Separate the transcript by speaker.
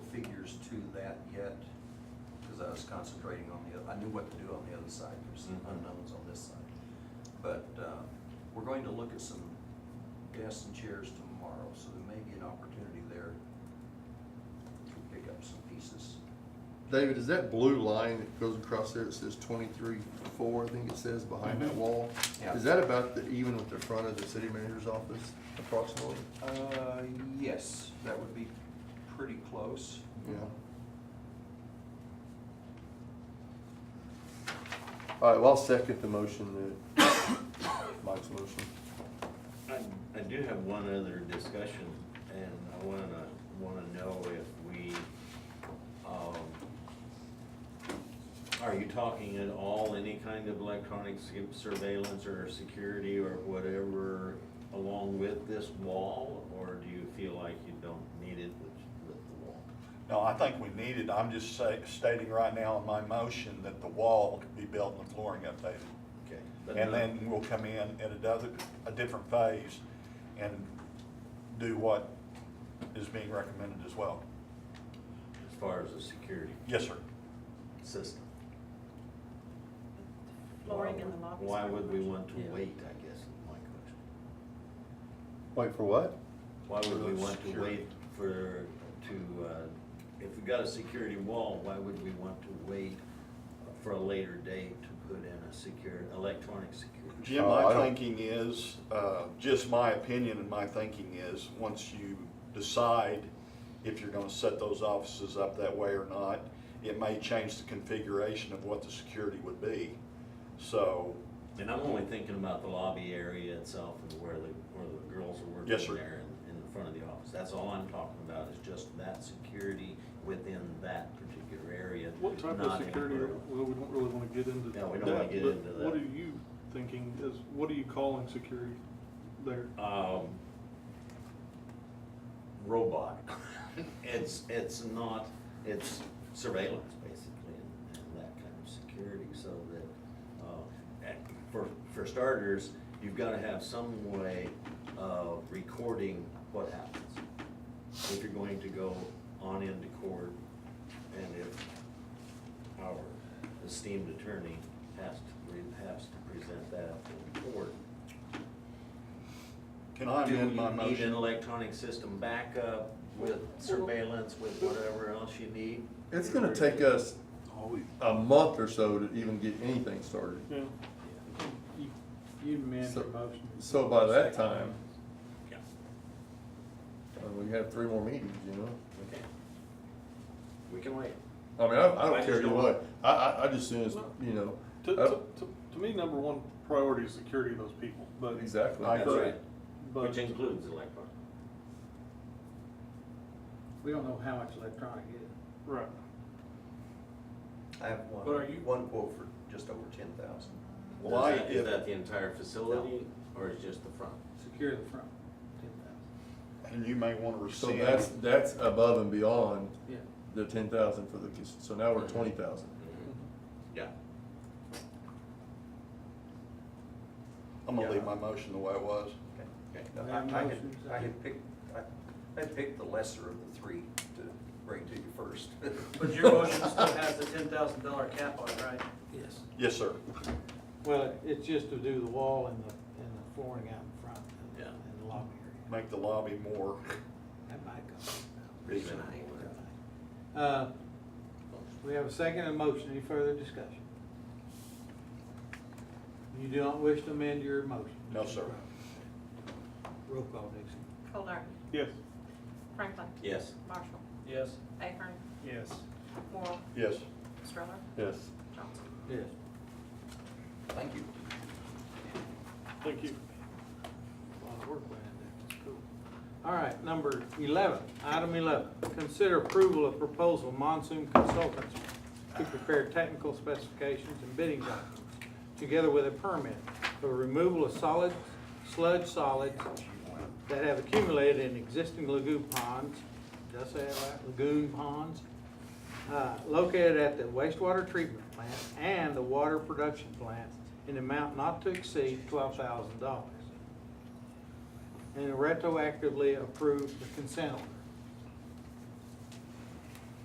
Speaker 1: I was concentrating on the, oth- I knew what to do on the other side, there's some
Speaker 2: Mhm.
Speaker 1: unknowns on this side. But, uh, we're going to look at some desks and chairs tomorrow, so there may be an opportunity there to pick up some pieces.
Speaker 3: David, is that blue line that goes across there, it says twenty-three four, I think it says, behind that
Speaker 2: Mhm.
Speaker 3: wall?
Speaker 1: Yeah.
Speaker 3: Is that about the, even with the front of the city manager's office approximately?
Speaker 1: Uh, yes, that would be pretty close.
Speaker 3: Yeah. All right, well, I'll second the motion that, Mike's motion.
Speaker 2: I, I do have one other discussion, and I wanna, wanna know if we, um, are you talking at all, any kind of electronic s- surveillance or security or whatever along with this wall? Or do you feel like you don't need it with, with the wall?
Speaker 4: No, I think we need it. I'm just say, stating right now in my motion that the wall could be built and the flooring updated.
Speaker 2: Okay. but
Speaker 4: And
Speaker 2: not-
Speaker 4: then we'll come in at another, a different phase and do what is being recommended as well.
Speaker 2: As far as the security
Speaker 4: Yes, sir.
Speaker 2: system.
Speaker 5: Flooring in the lobby.
Speaker 2: Why would we want to
Speaker 5: Yeah.
Speaker 2: wait, I guess, is my question.
Speaker 3: Wait, for what?
Speaker 2: Why would we want to
Speaker 4: Security.
Speaker 2: wait for, to, uh, if we got a security wall, why would we want to wait for a later date to put in a secure, electronic security?
Speaker 4: Jim,
Speaker 3: Oh, I
Speaker 4: my
Speaker 3: don't-
Speaker 4: thinking is, uh, just my opinion and my thinking is, once you decide if you're gonna set those offices up that way or not, it may change the configuration of what the security would be. So,
Speaker 2: And I'm only thinking about the lobby area itself and where the, where the girls are working
Speaker 4: Yes, sir.
Speaker 2: there in, in front of the office. That's all I'm talking about, is just that security within that particular area.
Speaker 6: What type of
Speaker 2: not
Speaker 6: security,
Speaker 2: anywhere else.
Speaker 6: well, we don't really wanna get into
Speaker 2: Yeah, we don't wanna
Speaker 6: that,
Speaker 2: get
Speaker 6: but
Speaker 2: into that.
Speaker 6: What are you thinking, is, what are you calling security there?
Speaker 2: um, robot. It's, it's not, it's surveillance basically and, and that kind of security so that, uh, and for, for starters, you've gotta have some way of recording what happens. If you're going to go on into court and if our esteemed attorney has to, re- has to present that in court,
Speaker 4: can I
Speaker 2: do
Speaker 4: amend my
Speaker 2: you need an
Speaker 4: motion?
Speaker 2: electronic system backup with surveillance, with whatever else you need?
Speaker 3: It's gonna take us a month or so to even get anything started.
Speaker 6: Yeah,
Speaker 7: You you amend
Speaker 3: So-
Speaker 7: your motion.
Speaker 3: So by that time,
Speaker 2: Yeah,
Speaker 3: uh, we have three more meetings, you know?
Speaker 2: okay. We can wait.
Speaker 3: I mean, I, I
Speaker 2: I
Speaker 3: don't
Speaker 2: just
Speaker 3: care either
Speaker 2: don't-
Speaker 3: way. I, I, I just soon as, you know.
Speaker 6: to,
Speaker 3: I
Speaker 6: to,
Speaker 3: don't-
Speaker 6: to, to me, number one priority is security of those people, but.
Speaker 3: Exactly.
Speaker 4: I
Speaker 2: That's
Speaker 4: agree.
Speaker 2: right.
Speaker 6: But-
Speaker 2: Which includes electronic.
Speaker 7: We don't know how much electronic is.
Speaker 6: Right,
Speaker 1: I have one,
Speaker 7: But are you-
Speaker 1: one quote for just over ten thousand.
Speaker 4: Well, I-
Speaker 2: Is that- Is that the entire facility or is just the front?
Speaker 7: Secure the front, ten thousand,
Speaker 4: And you may wanna
Speaker 3: So
Speaker 4: rescind.
Speaker 3: that's, that's above and beyond
Speaker 7: yeah.
Speaker 3: the ten thousand for the, cons- so now we're twenty thousand.
Speaker 7: Mm-hmm.
Speaker 2: Yeah.
Speaker 4: I'm gonna leave my motion the way it was.
Speaker 2: Okay.
Speaker 1: No,
Speaker 7: We
Speaker 1: I,
Speaker 7: have
Speaker 1: I had,
Speaker 7: motions.
Speaker 1: I had picked, I, I picked the lesser of the three to bring to you first.
Speaker 8: But your motion still has the ten thousand dollar cap on it, right?
Speaker 7: Yes.
Speaker 4: Yes, sir.
Speaker 7: Well, it- it's just to do the wall and the, and the flooring out in front and-
Speaker 2: Yeah.
Speaker 7: and the lobby area.
Speaker 4: Make the lobby more,
Speaker 7: That might go.
Speaker 2: Reasonable.
Speaker 7: Uh, We have a second and a motion, any further discussion? You do not wish to amend your motion?
Speaker 4: No, sir.
Speaker 7: Roll call, Dixie.
Speaker 5: Coldiron,
Speaker 6: yes,
Speaker 5: Franklin,
Speaker 2: Yes.
Speaker 5: Marshall,
Speaker 8: Yes.
Speaker 5: Ahern,
Speaker 7: Yes.
Speaker 5: Moore,
Speaker 4: yes.
Speaker 5: Stroller,
Speaker 3: Yes.
Speaker 5: Johnson.
Speaker 7: Yes.
Speaker 1: Thank you.
Speaker 6: thank you.
Speaker 7: A lot of work went in there, that's cool. All right, number eleven, item eleven, consider approval of proposal Monsoon Consultants to prepare technical specifications and bidding documents, together with a permit for the removal of solids, sludge solids that have accumulated in existing lagoon ponds, did I say that right, lagoon ponds? uh, located at the wastewater treatment plant and the water production plant in an amount not to exceed twelve thousand dollars and retroactively approve the consent order.